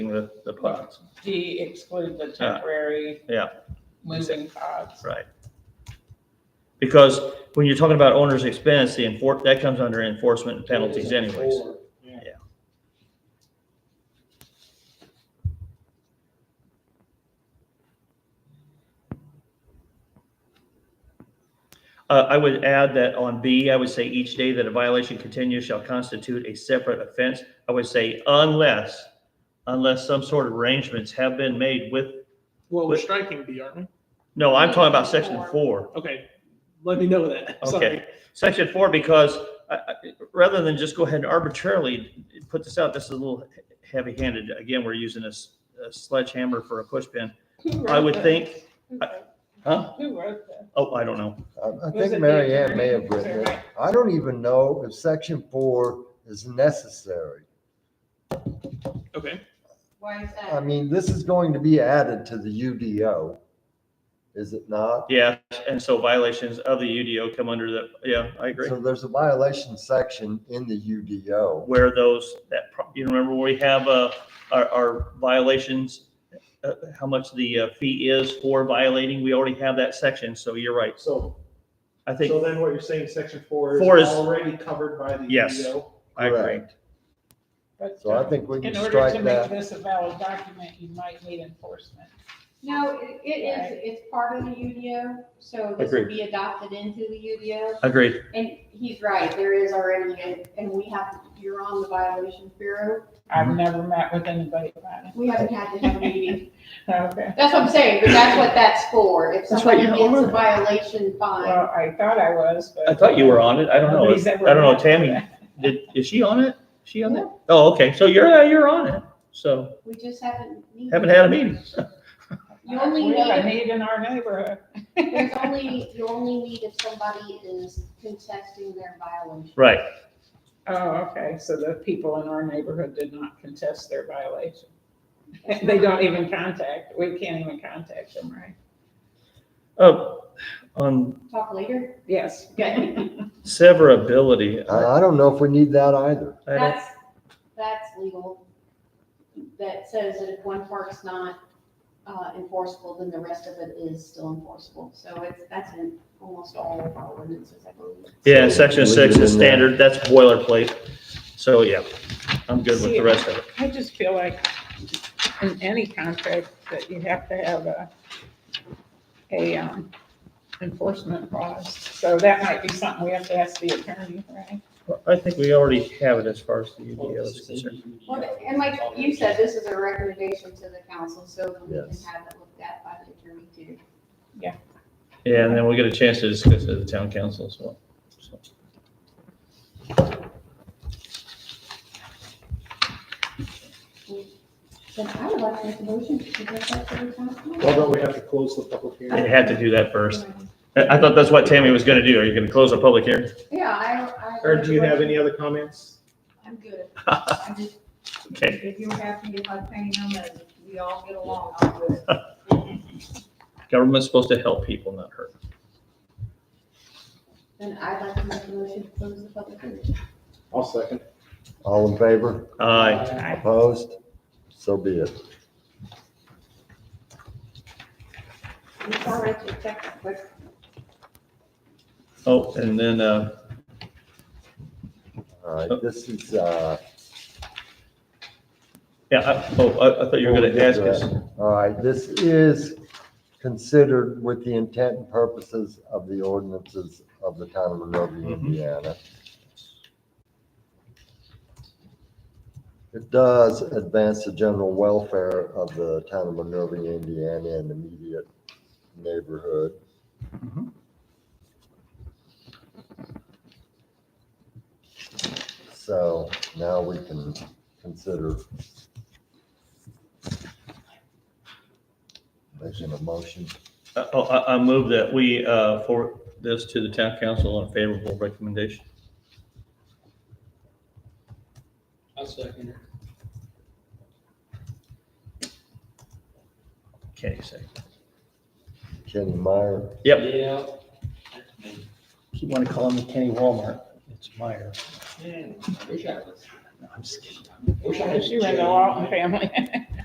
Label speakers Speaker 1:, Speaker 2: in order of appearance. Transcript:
Speaker 1: the, the plots,
Speaker 2: D exclude the
Speaker 1: Uh,
Speaker 2: temporary.
Speaker 1: yeah.
Speaker 2: Moving costs.
Speaker 1: right? Because when you're talking about owner's expense, the enfor, that comes under enforcement and penalties anyways. Yeah. Uh, I would add that on B, I would say each day that a violation continues shall constitute a separate offense. I would say unless, unless some sort of arrangements have been made with,
Speaker 3: Well, we're striking B, aren't we?
Speaker 1: no, I'm talking about section
Speaker 2: Four.
Speaker 1: four.
Speaker 3: Okay, let me know that. Sorry.
Speaker 1: Okay, section four, because I, I, rather than just go ahead and arbitrarily put this out, this is a little heavy handed. Again, we're using a s- a sledgehammer for a push pin.
Speaker 2: Who
Speaker 1: I
Speaker 2: wrote
Speaker 1: would
Speaker 2: this?
Speaker 1: think,
Speaker 2: Who wrote-
Speaker 1: huh?
Speaker 2: Who wrote this?
Speaker 1: Oh, I don't know.
Speaker 4: I- I
Speaker 2: Was it
Speaker 4: think
Speaker 2: the
Speaker 4: Mary Ann may have
Speaker 2: attorney?
Speaker 4: written it.
Speaker 2: Right.
Speaker 4: I don't even know if section four is necessary.
Speaker 3: Okay,
Speaker 5: Why is
Speaker 4: I
Speaker 5: that?
Speaker 4: mean, this is going to be added to the UDO, is it not?
Speaker 1: Yeah, and so violations of the UDO come under the, yeah, I agree.
Speaker 4: So there's a violation section in the UDO.
Speaker 1: Where those, that, pro- you remember where we have, uh, our, our violations, uh, how much the uh, fee is for violating? We already have that section, so you're right.
Speaker 6: So,
Speaker 1: I think,
Speaker 6: so then what you're saying, section four
Speaker 1: Four
Speaker 6: is
Speaker 1: is-
Speaker 6: already covered by the E
Speaker 1: Yes.
Speaker 6: UDO?
Speaker 1: I agree.
Speaker 4: Correct.
Speaker 2: But,
Speaker 4: So I
Speaker 2: um,
Speaker 4: think we can
Speaker 2: In order to
Speaker 4: strike
Speaker 2: make
Speaker 4: that.
Speaker 2: this a valid document, you might need enforcement.
Speaker 5: No, it it is, it's part of the UDO, so this
Speaker 1: Agreed.
Speaker 5: will be adopted into the UDO.
Speaker 1: Agreed.
Speaker 5: And he's right, there is already, a- and we have, you're on the violations bureau.
Speaker 2: I've
Speaker 1: Mm-hmm.
Speaker 2: never met with anybody about it.
Speaker 5: We haven't had to have a meeting.
Speaker 2: Okay,
Speaker 5: That's what I'm saying, but that's what that's for. If
Speaker 1: That's right,
Speaker 5: somebody
Speaker 1: you're
Speaker 5: gets
Speaker 1: over
Speaker 5: a
Speaker 1: it.
Speaker 5: violation fine,
Speaker 2: well, I thought I was, but.
Speaker 1: I thought you were on it. I don't know.
Speaker 2: Nobody's ever
Speaker 1: I don't know,
Speaker 2: met.
Speaker 1: Tammy, Did, is she on it? She on it? Oh, okay. So you're, yeah, you're on it. So
Speaker 5: we just haven't. needed-
Speaker 1: haven't had a meeting.
Speaker 5: You only
Speaker 2: We have a
Speaker 5: need,
Speaker 2: need in our neighborhood.
Speaker 5: there's only, you only need if somebody is contesting their violation.
Speaker 1: Right.
Speaker 2: Oh, okay, so the people in our neighborhood did not contest their violation. They don't even contact, we can't even contact them, right?
Speaker 1: Uh, on
Speaker 5: Talk later.
Speaker 2: Yes.
Speaker 5: Okay.
Speaker 1: severability, I,
Speaker 4: I I don't know if we need that either.
Speaker 1: I don't,
Speaker 5: That's, that's legal. That says that if one part's not uh, enforceable, then the rest of it is still enforceable. So it's, that's in almost all of our ordinances, I believe.
Speaker 1: yeah, section
Speaker 4: Leave
Speaker 1: six
Speaker 4: it
Speaker 1: is
Speaker 4: in there.
Speaker 1: standard. That's boilerplate. So yeah, I'm good with the rest of it.
Speaker 2: I just feel like in any contract that you have to have a, a um, enforcement clause. So that might be something we have to ask the attorney, right?
Speaker 1: I think we already have it as far as the
Speaker 6: Well,
Speaker 1: UDO
Speaker 6: this
Speaker 1: is
Speaker 6: is
Speaker 1: concerned.
Speaker 6: a
Speaker 5: Well,
Speaker 6: UDO.
Speaker 5: And like you said, this is a recommendation to the council, so we can
Speaker 4: Yes.
Speaker 5: have it looked at by the attorney too.
Speaker 1: Yeah, and then we'll get a chance to discuss it at the town council as well. So.
Speaker 5: So I would like to make a motion to suggest that to the council.
Speaker 6: Well, don't we have to close the public hearing?
Speaker 1: They had to do that first. I, I thought that's what Tammy was gonna do. Are you gonna close a public hearing?
Speaker 5: Yeah, I, I.
Speaker 6: Or do you have any other comments?
Speaker 7: I'm good. I just,
Speaker 1: Okay.
Speaker 7: if you're happy, if I paint them and we all get along, I'm good.
Speaker 1: Government's supposed to help people, not hurt.
Speaker 5: Then I'd like to make a motion to close the public hearing.
Speaker 6: I'll second.
Speaker 4: All in favor?
Speaker 1: Aye.
Speaker 4: Opposed? So be it.
Speaker 5: I'm sorry to check, but
Speaker 1: Oh, and then, uh,
Speaker 4: All right, this is, uh,
Speaker 1: yeah, I, oh, I, I thought you were gonna ask us.
Speaker 4: all right, this is considered with the intent and purposes of the ordinances of the town of Monrovia,
Speaker 1: Mhm.
Speaker 4: Indiana. It does advance the general welfare of the town of Monrovia, Indiana and immediate neighborhood. So now we can consider making a motion.
Speaker 1: Uh, Oh, I, I move that we, uh, forward this to the town council on favorable recommendation.
Speaker 6: I'll second.
Speaker 1: Kenny second.
Speaker 4: Kenny Meyer,
Speaker 1: Yep.
Speaker 6: Yeah.
Speaker 8: Keep wanting to call him Kenny Walmart. It's Meyer.
Speaker 6: Wish I was.
Speaker 8: No, I'm just kidding.
Speaker 6: Wish I
Speaker 2: She ran the Walton family.